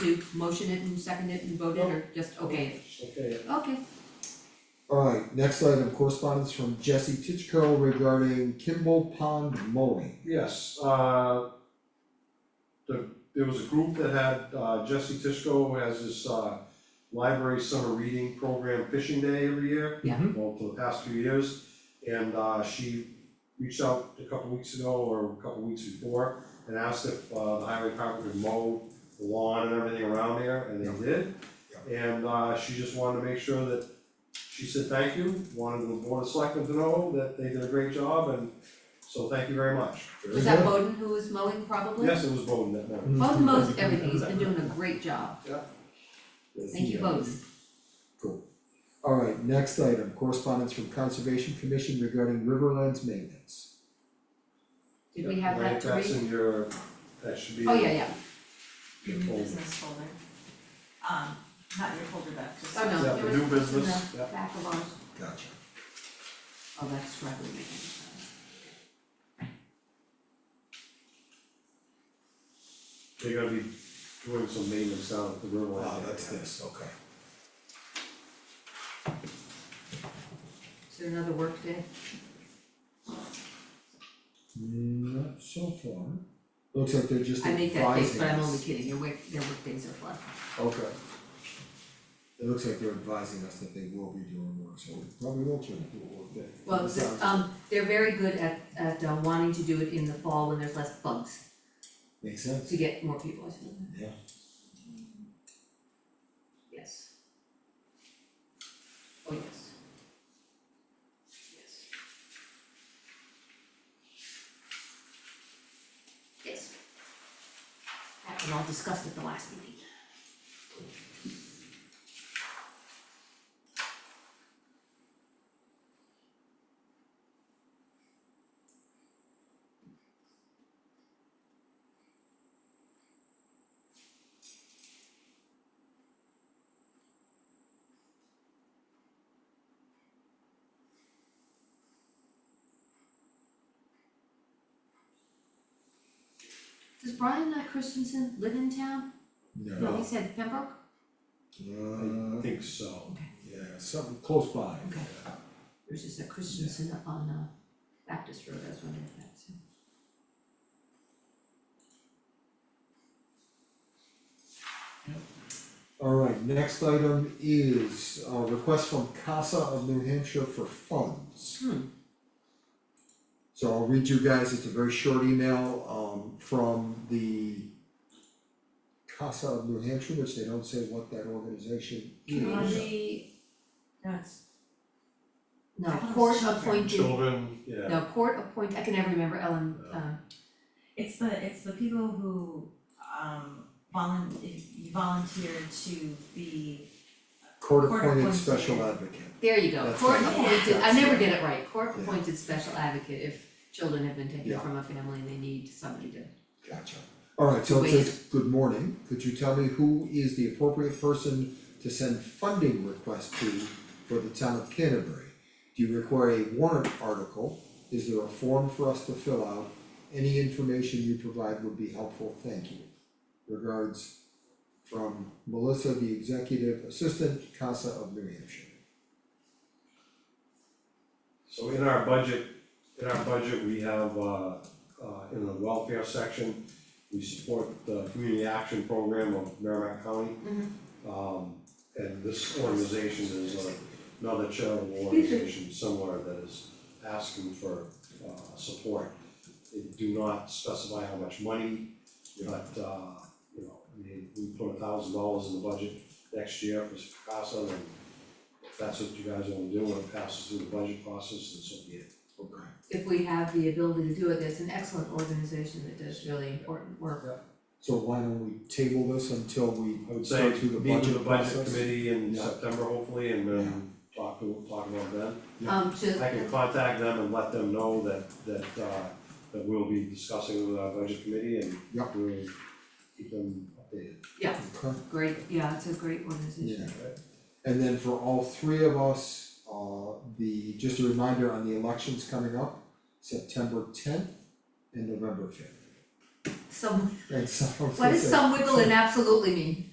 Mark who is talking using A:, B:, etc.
A: to motion it and second it and vote it, or just okay it?
B: Okay,
A: Okay,
C: Alright, next item, correspondence from Jesse Titchko regarding Kimball Pond mowing.
B: yes, uh. The, there was a group that had, uh, Jesse Tishko has this, uh, library summer reading program fishing day every year.
A: Yeah.
B: Well, for the past few years, and, uh, she reached out a couple weeks ago or a couple weeks before and asked if, uh, the highway department would mow the lawn and everything around there, and they did. And, uh, she just wanted to make sure that, she said thank you, wanted the board of selectmen to know that they did a great job and so thank you very much.
A: was that Bowden who was mowing probably?
B: Yes, it was Bowden that night.
A: Bowden mows everything, he's been doing a great job, thank you both.
C: Alright, next item, correspondence from Conservation Commission regarding Riverlands maintenance.
A: Did we have
B: Yeah,
A: that to
B: That's
A: read?
B: in your, that should be.
A: Oh, yeah, yeah,
B: your
D: Your new
B: folder.
D: business folder. Um, not your folder, but just.
A: oh no,
B: Yeah,
A: there
B: the
A: was
B: new
A: it was in
B: business,
A: the
B: yeah.
A: back of ours,
C: Gotcha.
A: oh, that's struggling.
B: They're gonna be doing some maintenance down at the river.
C: Oh, this, okay.
A: Is there another work day?
C: Not so far. Looks like they're just
A: I make
C: advising
A: that case, but I'm
C: us.
A: only kidding, your work, their work days are fun.
C: Okay. It looks like they're advising us that they will be doing work, so we probably will try to do a work day.
A: Well,
C: It sounds-
A: the- um, they're very good at, at uh, wanting to do it in the fall when there's less bugs,
C: Makes sense.
A: to get more people, I suppose.
C: Yeah.
A: Yes. Oh, yes. Yes. Yes. That was all discussed at the last meeting. Does Brian uh, Christensen live in town?
C: No,
A: he said Pembroke?
B: I
C: uh,
B: think so.
C: yeah, something close by.
A: Okay. There's just a Christensen up on uh Baptist Road, I was wondering if that's him.
C: Alright, next item is a request from CASA of New Hampshire for funds.
A: Hmm.
C: So I'll read you guys, it's a very short email um from the CASA of New Hampshire, which they don't say what that organization is.
A: Community,
D: No, it's,
A: no,
D: I thought it was
A: court
D: children.
A: appointed,
B: Children, yeah,
A: no, court appointed, I can never remember Ellen,
B: No.
A: um,
D: it's the, it's the people who, um, volun, you volunteer to be,
C: Court
D: Court-appointed.
C: appointed special advocate.
A: there you go,
C: That's
A: court
D: right.
A: appointed, I
C: That's
A: never
C: right.
A: get it right, court
C: Yeah.
A: appointed special advocate if children have been taken
C: Yeah.
A: from a family and they need somebody to.
C: Gotcha. Alright, so it
A: Wait.
C: says, good morning, could you tell me who is the appropriate person to send funding request to for the town of Canterbury? Do you require a warrant article? Is there a form for us to fill out? Any information you provide would be helpful, thank you. Regards from Melissa, the executive assistant, CASA of New Hampshire.
B: so in our budget, in our budget, we have, uh, uh, in the welfare section, we support the community action program of Merrimack County. Um, and this organization is uh, another charitable organization somewhere that is asking for, uh, support. They do not specify how much money, but, uh, you know, I mean, we put a thousand dollars in the budget next year for CASA and if that's what you guys wanna do, when it passes through the budget process, then so be it.
C: Okay.
A: If we have the ability to do it, there's an excellent organization that does really important work.
C: So why don't we table this until we
B: I would say,
C: start through the budget process?
B: meet with the budget committee in
C: Yeah.
B: September hopefully and then talk to, talk about that.
C: Yeah.
A: Um, to-
B: I can contact them and let them know that, that, uh, that we'll be discussing with our budget committee and
C: Yep.
B: we'll keep them updated.
C: Okay.
A: great, yeah, it's a great organization.
C: Yeah. And then for all three of us, uh, the, just a reminder on the elections coming up, September tenth and November fifth.
A: some,
C: and so I was
A: what
C: gonna
A: does
C: say-
A: some wiggle in absolutely mean?